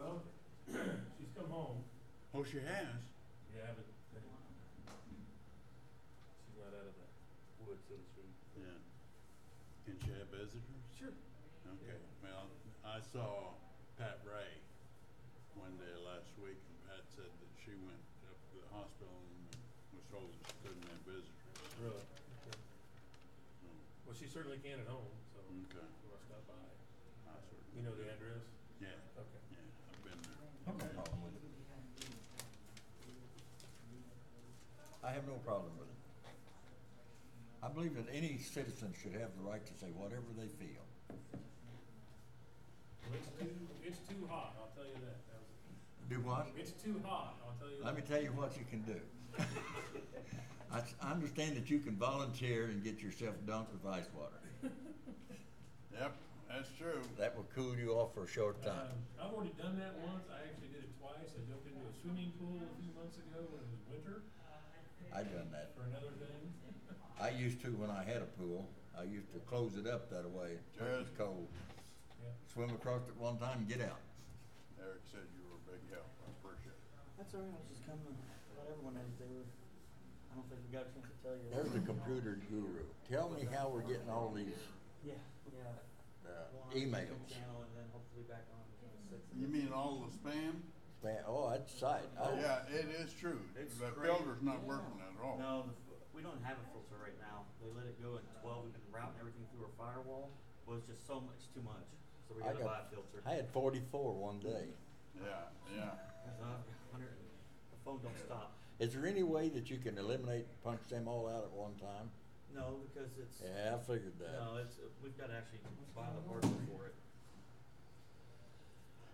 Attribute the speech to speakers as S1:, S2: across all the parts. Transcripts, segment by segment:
S1: Oh. Oh, she has.
S2: Yeah, but she's not out of the woods, so to speak.
S1: Yeah. Can she have visitors?
S2: Sure.
S1: Okay.
S2: Yeah.
S1: Well, I saw Pat Ray one day last week, and Pat said that she went up to the hospital and was told that she couldn't have visitors.
S2: Really?
S1: So,
S2: Well, she certainly can at home, so
S3: Mm.
S2: you
S1: Okay.
S2: want to stop by.
S1: I sort of-
S2: You know the address?
S1: Yeah,
S2: Okay.
S1: yeah, I've been there.
S3: I have no problem with it. I have no problem with it. I believe that any citizen should have the right to say whatever they feel.
S2: Well, It's too, it's too hot, I'll tell you that. That was-
S3: Do what?
S2: It's too hot, I'll tell you
S3: Let me
S2: that.
S3: tell you what you can do. I s- I understand that you can volunteer and get yourself dunked with ice water.
S1: Yep, that's true.
S3: That will cool you off for a short time.
S2: Um, I've already done that once. I actually did it twice. I jumped into a swimming pool a few months ago when it was winter
S3: I done that.
S2: for another thing.
S3: I used to when I had a pool. I used to close it up that way. It
S1: Jared.
S3: was cold.
S2: Yeah.
S3: Swim across it one time and get out.
S1: Eric said you were a big help. I appreciate it.
S4: That's all right, I was just coming, to let everyone know that they were, I don't think we got a chance to tell you.
S3: There's the computer guru. Tell me how we're getting all these
S4: Yeah, yeah.
S3: uh,
S4: Go on our YouTube
S3: emails.
S4: Channel and then hopefully back on the sixth.
S1: You mean all the spam?
S3: Man, oh, that's sight. I-
S1: Yeah, it is true. The
S4: It's great.
S1: filter's not working at all.
S4: No, the f- we don't have a filter right now. They let it go at twelve. We've been routing everything through our firewall, but it's just so much too much. So we
S3: I
S4: gotta buy a
S3: got,
S4: filter.
S3: I had forty-four one day.
S1: Yeah, yeah.
S4: Uh, 100 The phone don't stop.
S3: Is there any way that you can eliminate, punch them all out at one time?
S4: No, because it's,
S3: Yeah, I figured that.
S4: no, it's, we've gotta actually buy the hardware for it.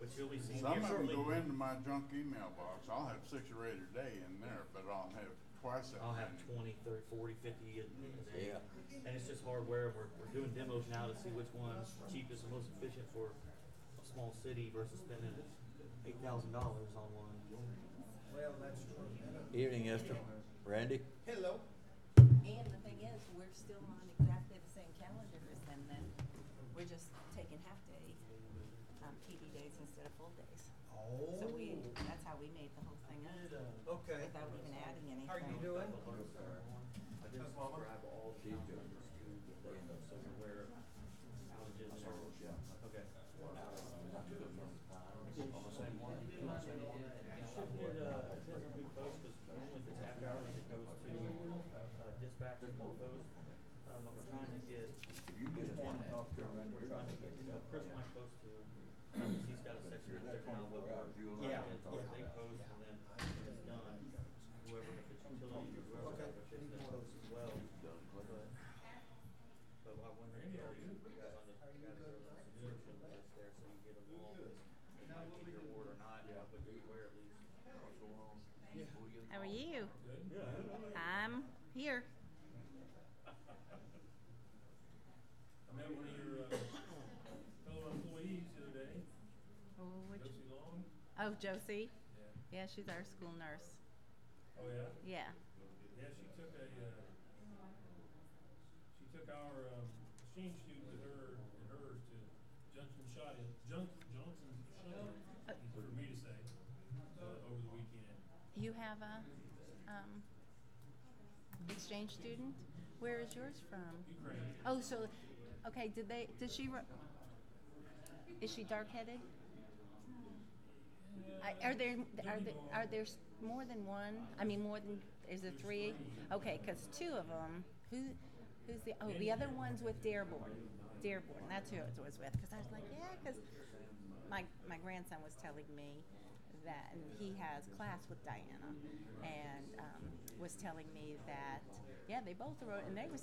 S4: But you'll be seeing here
S1: Some of them
S4: shortly.
S1: go into my junk email box. I'll have six or eight a day in there, but I'll have twice that.
S4: I'll have
S1: many.
S4: 20, 30, 40, 50 a a day.
S3: Yeah.
S4: And it's just hardware. We're, we're doing demos now to see which one's cheapest and most efficient for a small city versus spending $8,000 on one.
S5: Well, that's true.
S3: Evening, Esther. Randy?
S5: Hello.
S6: And the thing is, we're still on exactly the same calendar as them then. We're just taking half-day, um, PD days instead of full days. So we,
S5: Oh,
S6: that's how we made the whole thing up,
S5: okay.
S6: without even adding anything.
S5: How are you doing?
S4: I just grab all the numbers to the end of somewhere. Outages are- Okay. You should get a, it doesn't be posted, normally if it's after hours, it goes to uh, dispatch and all those. Um, I'm trying to get. We're trying to get, you know, Chris might post to, he's got a section out there now, but we're-
S3: Yeah.
S4: They post and then it's done. Whoever, if it's utility, whoever, if it's that post as well. But- But I wonder if y'all, you guys on the, you guys are on the subscription list there, so you get them all. It might be your award or not, but you're aware at least.
S7: How are you?
S2: Good?
S7: I'm here.
S2: I met one of your uh, fellow employees the other day,
S7: Oh, which,
S2: Josie Long.
S7: oh, Josie.
S2: Yeah.
S7: Yeah, she's our school nurse.
S2: Oh, yeah?
S7: Yeah.
S2: Yeah, she took a, uh, she took our, um, machine shoot with her and hers to Johnson Shot, Junk, Johnson Shot, for me to say, uh, over the weekend.
S7: You have a um, exchange student. Where is yours from?
S2: Ukraine.
S7: Oh, so okay. Did they? Did she? ru- Is she dark-headed? I, are there are there are there s- more than one? I mean, more than is there three? Okay, because two of them. Who who's the? Oh, the other one's with Dearborn. Dearborn. That's who it was with. Because I was like, yeah, because my my grandson was telling me that and he has class with Diana, and um, was telling me that yeah, they both wrote and they was